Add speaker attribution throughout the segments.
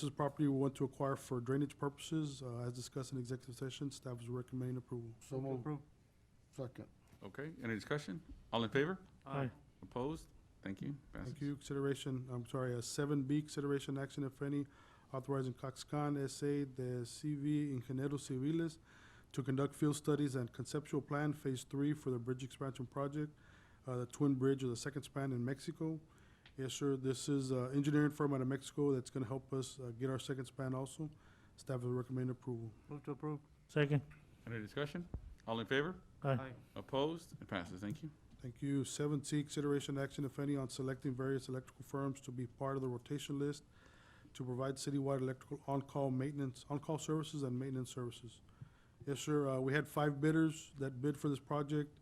Speaker 1: This is property we want to acquire for drainage purposes. Uh, As discussed in executive session, staff is recommending approval.
Speaker 2: So moved. Second.
Speaker 3: Okay, any discussion? All in favor?
Speaker 4: Aye.
Speaker 3: Opposed? Thank you. Passes.
Speaker 1: Thank you. Consideration, I'm sorry, seven B, consideration action, if any, authorizing Coxcon S.A., the CV Ingenieros Civiles to conduct field studies and conceptual plan phase three for the bridge expansion project, uh, the Twin Bridge or the second span in Mexico. Yes, sir, this is uh, engineering firm out of Mexico that's gonna help us uh, get our second span also. Staff will recommend approval.
Speaker 4: Move to approve. Second.
Speaker 3: Any discussion? All in favor?
Speaker 4: Aye.
Speaker 3: Opposed? It passes. Thank you.
Speaker 1: Thank you. Seven C, consideration action, if any, on selecting various electrical firms to be part of the rotation list to provide citywide electrical on-call maintenance, on-call services and maintenance services. Yes, sir, uh, we had five bidders that bid for this project.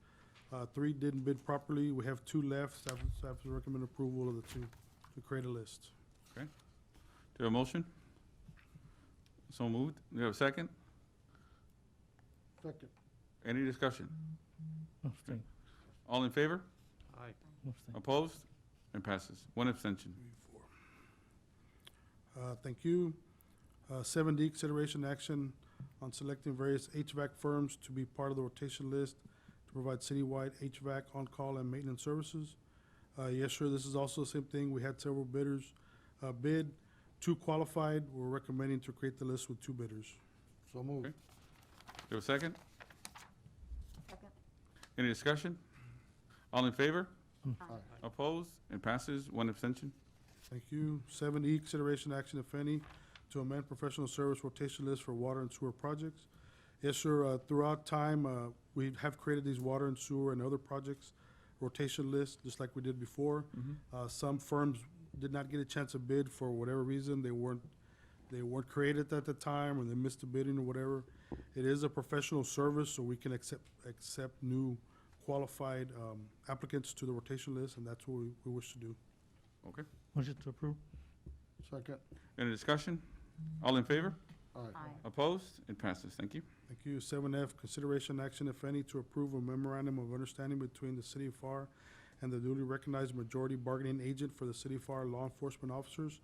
Speaker 1: Uh, three didn't bid properly. We have two left. Staff, staff recommend approval of the two to create a list.
Speaker 3: Do you have a motion? So moved. Do you have a second?
Speaker 2: Second.
Speaker 3: Any discussion?
Speaker 4: Abstain.
Speaker 3: All in favor?
Speaker 2: Aye.
Speaker 4: Abstain.
Speaker 3: Opposed? It passes. One abstention.
Speaker 1: Uh, Thank you. Uh, Seven D, consideration action on selecting various HVAC firms to be part of the rotation list to provide citywide HVAC on-call and maintenance services. Uh, Yes, sir, this is also the same thing. We had several bidders uh, bid, two qualified. We're recommending to create the list with two bidders.
Speaker 2: So moved.
Speaker 3: Okay. Do you have a second? Any discussion? All in favor?
Speaker 2: Aye.
Speaker 3: Opposed? It passes. One abstention.
Speaker 1: Thank you. Seven E, consideration action, if any, to amend professional service rotation list for water and sewer projects. Yes, sir, uh, throughout time, uh, we have created these water and sewer and other projects rotation lists, just like we did before. Uh, some firms did not get a chance to bid for whatever reason, they weren't, they weren't created at the time, or they missed the bidding or whatever. It is a professional service, so we can accept, accept new qualified, um, applicants to the rotation list, and that's what we, we wish to do.
Speaker 3: Okay.
Speaker 4: Motion to approve.
Speaker 2: Second.
Speaker 3: Any discussion? All in favor?
Speaker 2: Aye.
Speaker 3: Opposed? It passes. Thank you.
Speaker 1: Thank you. Seven F, consideration action, if any, to approve a memorandum of understanding between the City of FAR and the duly recognized majority bargaining agent for the City of FAR law enforcement officers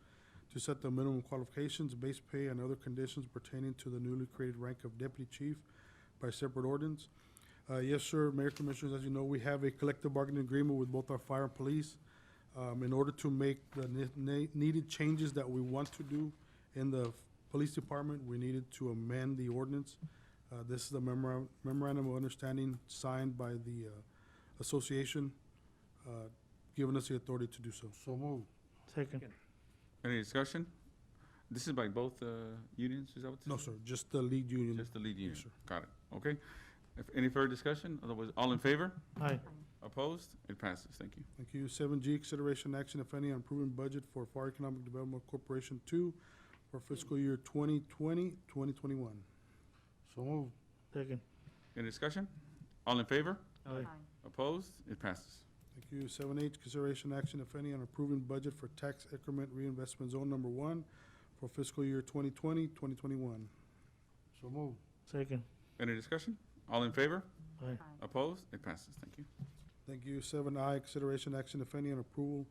Speaker 1: to set the minimum qualifications, base pay, and other conditions pertaining to the newly created rank of deputy chief by separate ordinance. Uh, yes, sir, Mayor Commissioners, as you know, we have a collective bargaining agreement with both our fire and police. Um, in order to make the ne- ne- needed changes that we want to do in the police department, we needed to amend the ordinance. Uh, This is the memora- memorandum of understanding signed by the uh, association, uh, giving us the authority to do so.
Speaker 2: So moved.
Speaker 4: Second.
Speaker 3: Any discussion? This is by both uh, unions, is that what this
Speaker 1: No,
Speaker 3: is?
Speaker 1: sir, just the lead union.
Speaker 3: Just the lead union.
Speaker 1: sir.
Speaker 3: Got it. Okay. If any further discussion, otherwise, all in favor?
Speaker 4: Aye.
Speaker 3: Opposed? It passes. Thank you.
Speaker 1: Thank you. Seven G, consideration action, if any, on approving budget for FAR Economic Development Corporation Two for fiscal year 2020-2021.
Speaker 2: So moved.
Speaker 4: Second.
Speaker 3: Any discussion? All in favor?
Speaker 4: Aye.
Speaker 3: Opposed? It passes.
Speaker 1: Thank you. Seven H, consideration action, if any, on approving budget for tax increment reinvestment zone number one for fiscal year 2020-2021.
Speaker 2: So moved.
Speaker 4: Second.
Speaker 3: Any discussion? All in favor?
Speaker 4: Aye.
Speaker 3: Opposed? It passes. Thank you.
Speaker 1: Thank you. Seven I, consideration action, if any, on approval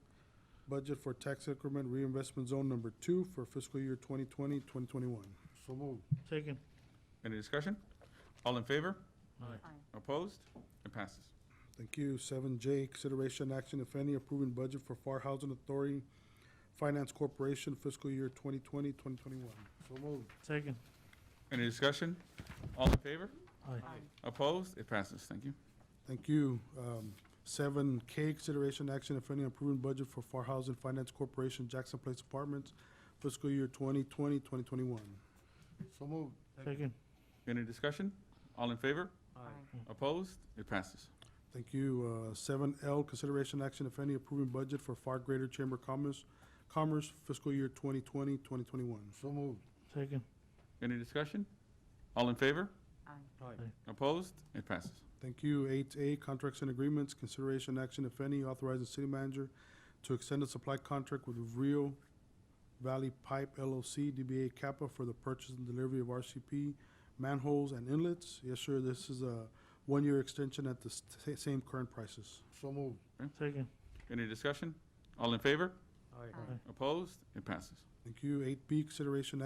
Speaker 1: budget for tax increment reinvestment zone number two for fiscal year 2020-2021.
Speaker 2: So moved.
Speaker 4: Second.
Speaker 3: Any discussion? All in favor?
Speaker 4: Aye.
Speaker 3: Opposed? It passes.
Speaker 1: Thank you. Seven J, consideration action, if any, approving budget for FAR Housing Authority Finance Corporation fiscal year 2020-2021.
Speaker 2: So moved.
Speaker 4: Second.
Speaker 3: Any discussion? All in favor?
Speaker 4: Aye.
Speaker 3: Opposed? It passes. Thank you.
Speaker 1: Thank you. Um, seven K, consideration action, if any, approving budget for FAR Housing Finance Corporation Jackson Place Apartments fiscal year 2020-2021.
Speaker 2: So moved.
Speaker 4: Second.
Speaker 3: Any discussion? All in favor?
Speaker 4: Aye.
Speaker 3: Opposed? It passes.
Speaker 1: Thank you. Uh, Seven L, consideration action, if any, approving budget for Far Greater Chamber of Commerce, Commerce fiscal year 2020, 2021.
Speaker 2: So moved.
Speaker 4: Second.
Speaker 3: Any discussion? All in favor?
Speaker 2: Aye.
Speaker 3: Opposed? It passes.
Speaker 1: Thank you. Eight A, contracts and agreements, consideration action, if any, authorizing city manager to extend a supply contract with Rio Valley Pipe LLC, DBA Kappa, for the purchase and delivery of RCP manholes and inlets. Yes, sir, this is a one-year extension at the st- same current prices.
Speaker 2: So moved.
Speaker 4: Second.
Speaker 3: Any discussion? All in favor?
Speaker 2: Aye.
Speaker 3: Opposed? It passes.
Speaker 1: Thank you. Eight B, consideration